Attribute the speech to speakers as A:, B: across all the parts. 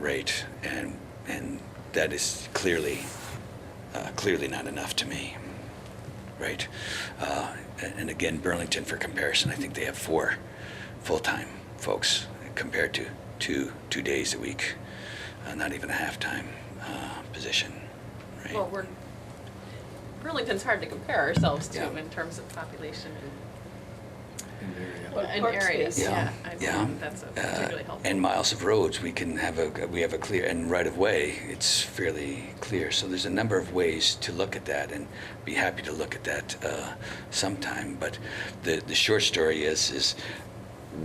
A: rate, and and that is clearly uh, clearly not enough to me, right? Uh, and, and again, Burlington, for comparison, I think they have four full-time folks compared to two two days a week, uh, not even a half-time uh, position, right?
B: Well, we're, Burlington's hard to compare ourselves
A: Yeah.
B: to in terms of population and-
C: in the
D: Well,
C: area.
B: and
D: Park
B: areas,
D: space.
B: yeah.
A: Yeah,
B: I
A: yeah.
B: think that's a
A: Uh,
B: particularly helpful.
A: And miles of roads, we can have a, we have a clear, and right of way, it's fairly clear. So there's a number of ways to look at that and be happy to look at that uh, sometime. But the, the short story is, is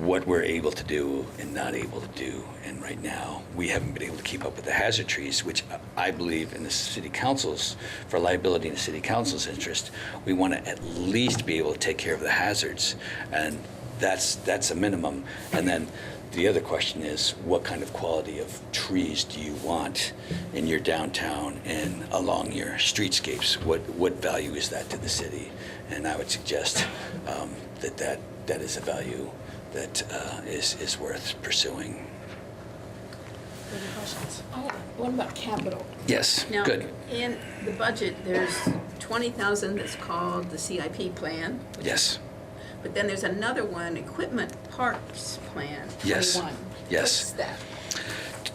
A: what we're able to do and not able to do. And right now, we haven't been able to keep up with the hazard trees, which I believe in the city council's, for liability in the city council's interest, we want to at least be able to take care of the hazards. And that's, that's a minimum. And then the other question is, what kind of quality of trees do you want in your downtown and along your streetscapes? What, what value is that to the city? And I would suggest um, that that, that is a value that uh, is, is worth pursuing.
D: Any questions? What about capital?
A: Yes,
E: Now,
A: good.
E: in the budget, there's 20,000 that's called the CIP plan,
A: Yes,
E: but then there's another one, Equipment Parks Plan,
A: Yes.
E: 21.
A: Yes.
E: What's that?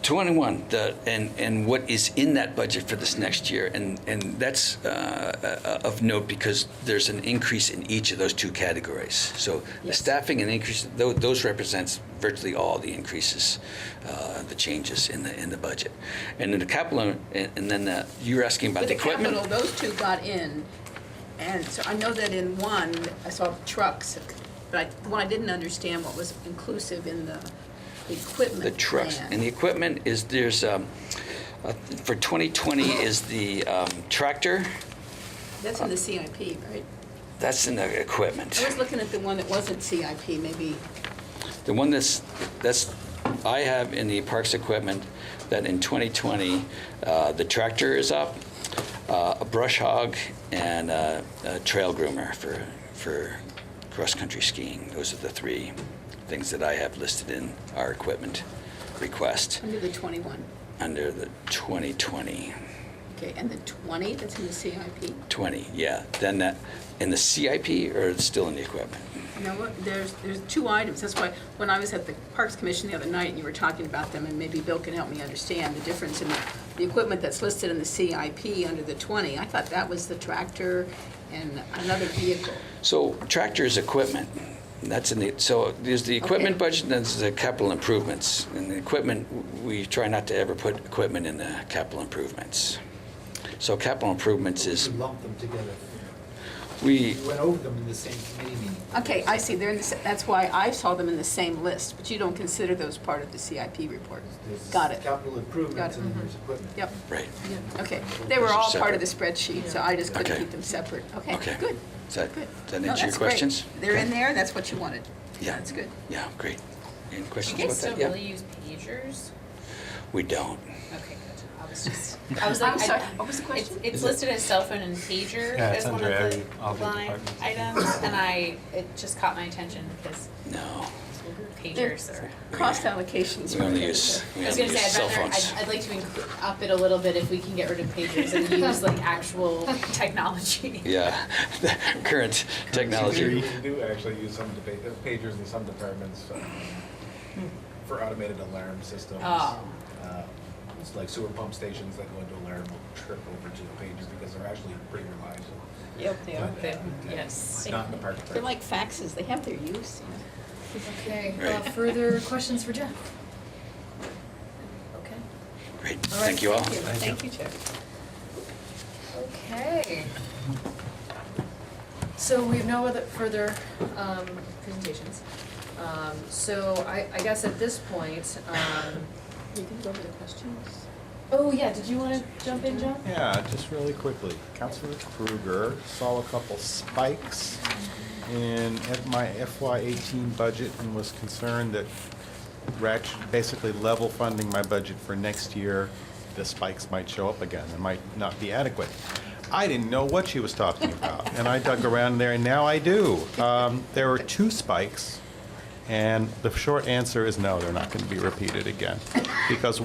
A: 21, the, and, and what is in that budget for this next year? And, and that's uh, uh, of note because there's an increase in each of those two categories. So the
E: Yes.
A: staffing and increase, tho- those represents virtually all the increases, uh, the changes in the, in the budget. And then the capital, and and then the- you were asking about
E: With
A: the
E: the
A: equipment?
E: capital, those two got in, and so I know that in one, I saw trucks, but I, the one I didn't understand what was inclusive in the equipment
A: The trucks.
E: plan.
A: And the equipment is, there's, um, uh, for 2020 is the um, tractor,
E: That's in the CIP, right?
A: that's in the equipment.
E: I was looking at the one that wasn't CIP, maybe,
A: The one that's, that's, I have in the parks equipment, that in 2020, uh, the tractor is up, uh, a brush hog, and uh, a trail groomer for, for cross-country skiing. Those are the three things that I have listed in our equipment request
E: under the 21.
A: under the 2020.
E: Okay, and the 20 that's in the CIP?
A: 20, yeah. Then that, in the CIP or it's still in the equipment?
E: You know what, there's, there's two items, that's why, when I was at the Parks Commission the other night, and you were talking about them, and maybe Bill can help me understand the difference in the, the equipment that's listed in the CIP under the 20, I thought that was the tractor and another vehicle.
A: So tractor is equipment. That's in the, so there's the equipment
E: Okay.
A: budget, and there's the capital improvements. And the equipment, we try not to ever put equipment in the capital improvements. So capital improvements is,
C: We lumped them together.
A: we,
C: We went over them in the same committee meeting.
E: Okay, I see, they're in the, sa- that's why I saw them in the same list, but you don't consider those part of the CIP report.
C: There's
E: Got it,
C: Capital improvements
E: it. Mm-hmm.
C: and there's equipment.
E: yep,
A: right,
E: okay, they were
A: Those are
E: all part of the
A: separate.
E: spreadsheet, so I just couldn't
A: Okay.
E: keep them separate, okay,
A: okay.
E: good,
A: Does that,
E: good.
A: does that
E: No,
A: answer your
E: that's great.
A: questions?
E: They're in there, that's what you wanted.
A: Yeah.
E: That's good.
A: Yeah, great. Any
D: Do
A: questions
D: you
A: about
D: guys still
A: that? Yeah.
D: really use pagers?
A: We don't.
D: Okay, good. I was just, I was like,
B: I'm sorry,
D: I-
F: Oh,
B: what was the
D: it's,
B: question?
D: it's listed as cell phone and pager
G: Yeah, it's
D: as one of
G: under
D: the
G: every- all the
D: line
G: departments.
D: items, and I, it just caught my attention because
A: No.
D: pagers are.
E: Cost allocations.
A: We only use, we
D: I was
A: only
D: gonna say,
A: use
D: I'd
A: cell
D: rather,
A: phones.
D: I'd, I'd like to inc- up it a little bit if we can get rid of pagers and use like actual technology.
A: Yeah, current
H: We
A: technology.
H: do actually use some deba- uh, pagers in some departments uh, for automated alarm systems.
E: Ah.
D: Oh.
H: Uh, It's like sewer pump stations that go into alarm will trip over to the pager because they're actually pretty reliable.
E: Yep, they are.
H: But, uh,
D: They- yes.
H: it's Not in the park.
E: They're like faxes, they have their use, you know.
F: Okay, uh,
A: Right.
F: further questions for Jeff? Okay.
A: Great,
F: All right,
A: thank you all.
E: Thank you, Jeff.
F: Okay. So we have no other further um, presentations. Um, So I, I guess at this point, um,
E: You can go over the questions.
F: oh yeah, did you want to jump in, John?
G: Yeah, just really quickly, Councilor Kruger saw a couple spikes in F- my FY eighteen budget and was concerned that ratchet, basically level funding my budget for next year, the spikes might show up again, and might not be adequate. I didn't know what she was talking about, and I dug around there, and now I do. Um, There were two spikes, and the short answer is no, they're not gonna be repeated again. Because